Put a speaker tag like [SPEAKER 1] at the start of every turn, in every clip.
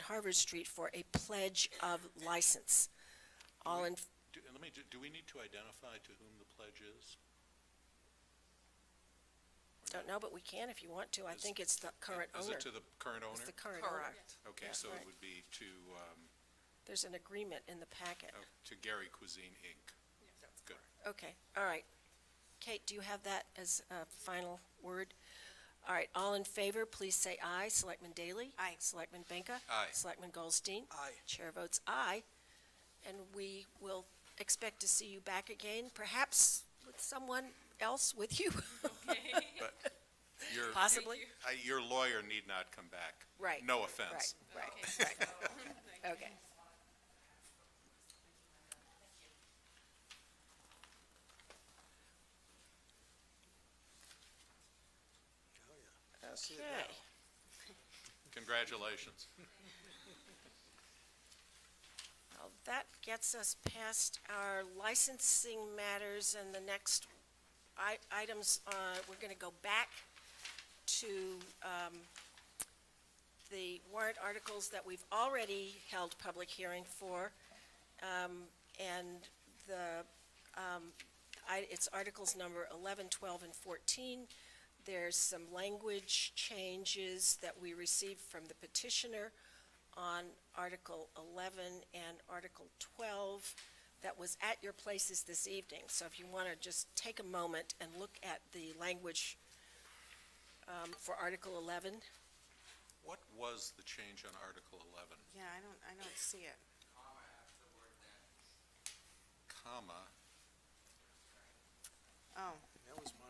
[SPEAKER 1] Harvard Street for a pledge of license. All in,
[SPEAKER 2] Do, let me, do, do we need to identify to whom the pledge is?
[SPEAKER 1] don't know, but we can if you want to. I
[SPEAKER 2] Is-
[SPEAKER 1] think it's the current
[SPEAKER 2] Is
[SPEAKER 1] owner.
[SPEAKER 2] it to the current owner?
[SPEAKER 1] It's the current owner.
[SPEAKER 3] Correct.
[SPEAKER 2] Okay,
[SPEAKER 1] yeah,
[SPEAKER 2] so it
[SPEAKER 1] right.
[SPEAKER 2] would be to, um,
[SPEAKER 1] There's an agreement in the packet.
[SPEAKER 2] oh, to Gary Cuisine, Inc. Good.
[SPEAKER 1] Okay, all right. Kate, do you have that as a final word? All right, all in favor, please say aye. Selectman Daley?
[SPEAKER 3] Aye.
[SPEAKER 1] Selectman Benka?
[SPEAKER 2] Aye.
[SPEAKER 1] Selectman Goldstein?
[SPEAKER 2] Aye.
[SPEAKER 1] Chair votes aye. And we will expect to see you back again, perhaps with someone else with you,
[SPEAKER 2] But your,
[SPEAKER 1] possibly?
[SPEAKER 2] I- your lawyer need not come back.
[SPEAKER 1] Right.
[SPEAKER 2] No
[SPEAKER 1] Right,
[SPEAKER 2] offense.
[SPEAKER 1] right, right. Okay. Okay.
[SPEAKER 2] Congratulations.
[SPEAKER 1] Well, that gets us past our licensing matters and the next i- items, uh, we're going to go back to um, the warrant articles that we've already held public hearing for. Um, And the, um, I- it's articles number 11, 12, and 14. There's some language changes that we received from the petitioner on Article 11 and Article 12 that was at your places this evening. So if you want to just take a moment and look at the language um, for Article 11.
[SPEAKER 2] What was the change on Article 11?
[SPEAKER 3] Yeah, I don't, I don't see it.
[SPEAKER 2] Comma,
[SPEAKER 3] Oh,
[SPEAKER 4] That was my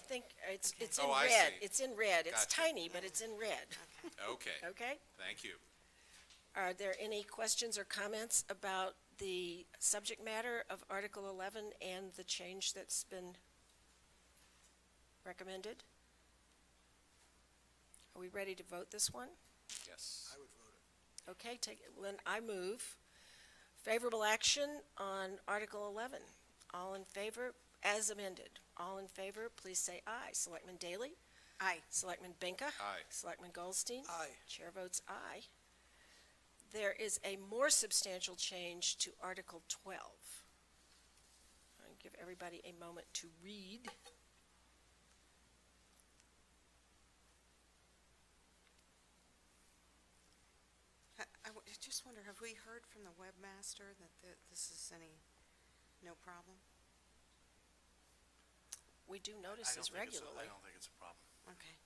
[SPEAKER 1] I think it's, it's in
[SPEAKER 2] Oh, I
[SPEAKER 1] red.
[SPEAKER 2] see.
[SPEAKER 1] It's in red. It's
[SPEAKER 2] Gotcha.
[SPEAKER 1] tiny, but it's in red,
[SPEAKER 2] okay,
[SPEAKER 1] okay?
[SPEAKER 2] thank you.
[SPEAKER 1] Are there any questions or comments about the subject matter of Article 11 and the change that's been recommended? Are we ready to vote this one?
[SPEAKER 2] Yes.
[SPEAKER 4] I would vote it.
[SPEAKER 1] Okay, take, then I move favorable action on Article 11. All in favor, as amended. All in favor, please say aye. Selectman Daley?
[SPEAKER 3] aye.
[SPEAKER 1] Selectman Benka?
[SPEAKER 2] Aye.
[SPEAKER 1] Selectman Goldstein?
[SPEAKER 4] Aye.
[SPEAKER 1] Chair votes aye. There is a more substantial change to Article 12. I'll give everybody a moment to read.
[SPEAKER 3] I, I w- I just wonder, have we heard from the webmaster that th- this is any, no problem?
[SPEAKER 1] We do notice this regularly.
[SPEAKER 5] don't think it's a problem.
[SPEAKER 3] Okay.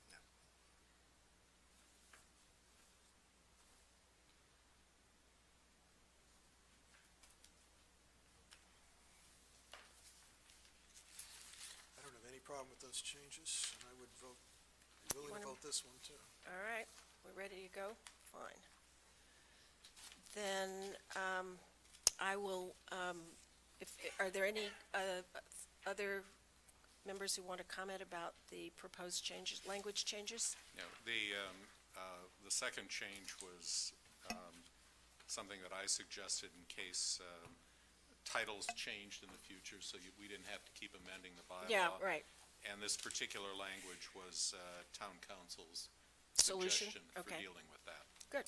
[SPEAKER 4] I don't have any problem with those changes, and I would vote, willing
[SPEAKER 1] wanna-
[SPEAKER 4] to vote this one too.
[SPEAKER 1] All right, we're ready to go? Fine. Then um, I will, um, if, are there any uh, other members who want to comment about the proposed changes, language changes?
[SPEAKER 2] No, the, um, uh, the second change was, um, something that I suggested in case, um, titles changed in the future, so you, we didn't have to keep amending the bylaw.
[SPEAKER 1] Yeah, right.
[SPEAKER 2] And this particular language was, uh, town council's
[SPEAKER 1] Solution?
[SPEAKER 2] suggestion for
[SPEAKER 1] Okay.
[SPEAKER 2] dealing with that.
[SPEAKER 1] Good.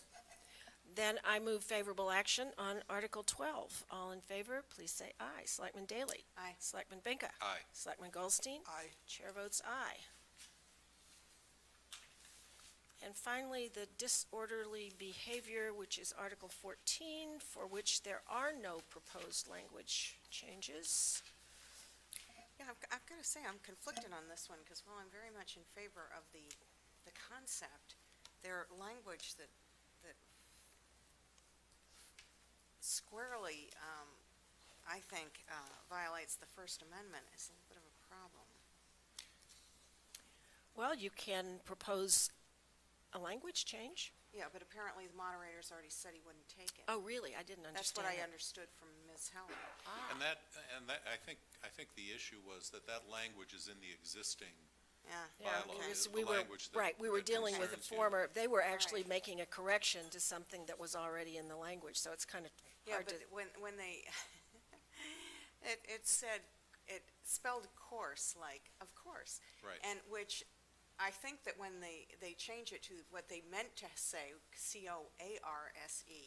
[SPEAKER 1] Then I move favorable action on Article 12. All in favor, please say aye. Selectman Daley?
[SPEAKER 3] Aye.
[SPEAKER 1] Selectman Benka?
[SPEAKER 2] Aye.
[SPEAKER 1] Selectman Goldstein?
[SPEAKER 4] Aye.
[SPEAKER 1] Chair votes aye. And finally, the disorderly behavior, which is Article 14, for which there are no proposed language changes.
[SPEAKER 3] Yeah, I've, g- I've got to say, I'm conflicted on this one, because while I'm very much in favor of the, the concept, their language that, that squarely, um, I think, uh, violates the First Amendment is a little bit of a problem.
[SPEAKER 1] Well, you can propose a language change.
[SPEAKER 3] Yeah, but apparently the moderator's already said he wouldn't take it.
[SPEAKER 1] Oh, really? I didn't understand
[SPEAKER 3] That's what I
[SPEAKER 1] that.
[SPEAKER 3] understood from Ms. Helen.
[SPEAKER 1] Ah.
[SPEAKER 2] And that, and that, I think, I think the issue was that that language is in the existing
[SPEAKER 3] Yeah.
[SPEAKER 1] Yeah,
[SPEAKER 2] bylaw,
[SPEAKER 1] because
[SPEAKER 2] the- the
[SPEAKER 1] we were-
[SPEAKER 2] language that-
[SPEAKER 1] Right, we were
[SPEAKER 2] that
[SPEAKER 1] dealing with a
[SPEAKER 2] concerns you.
[SPEAKER 1] former, they were actually
[SPEAKER 3] Right.
[SPEAKER 1] making a correction to something that was already in the language, so it's kind of
[SPEAKER 3] Yeah,
[SPEAKER 1] hard to.
[SPEAKER 3] but when, when they, it, it said, it spelled course, like, of course.
[SPEAKER 2] Right.
[SPEAKER 3] And which I think that when they, they change it to what they meant to say, C-O-A-R-S-E,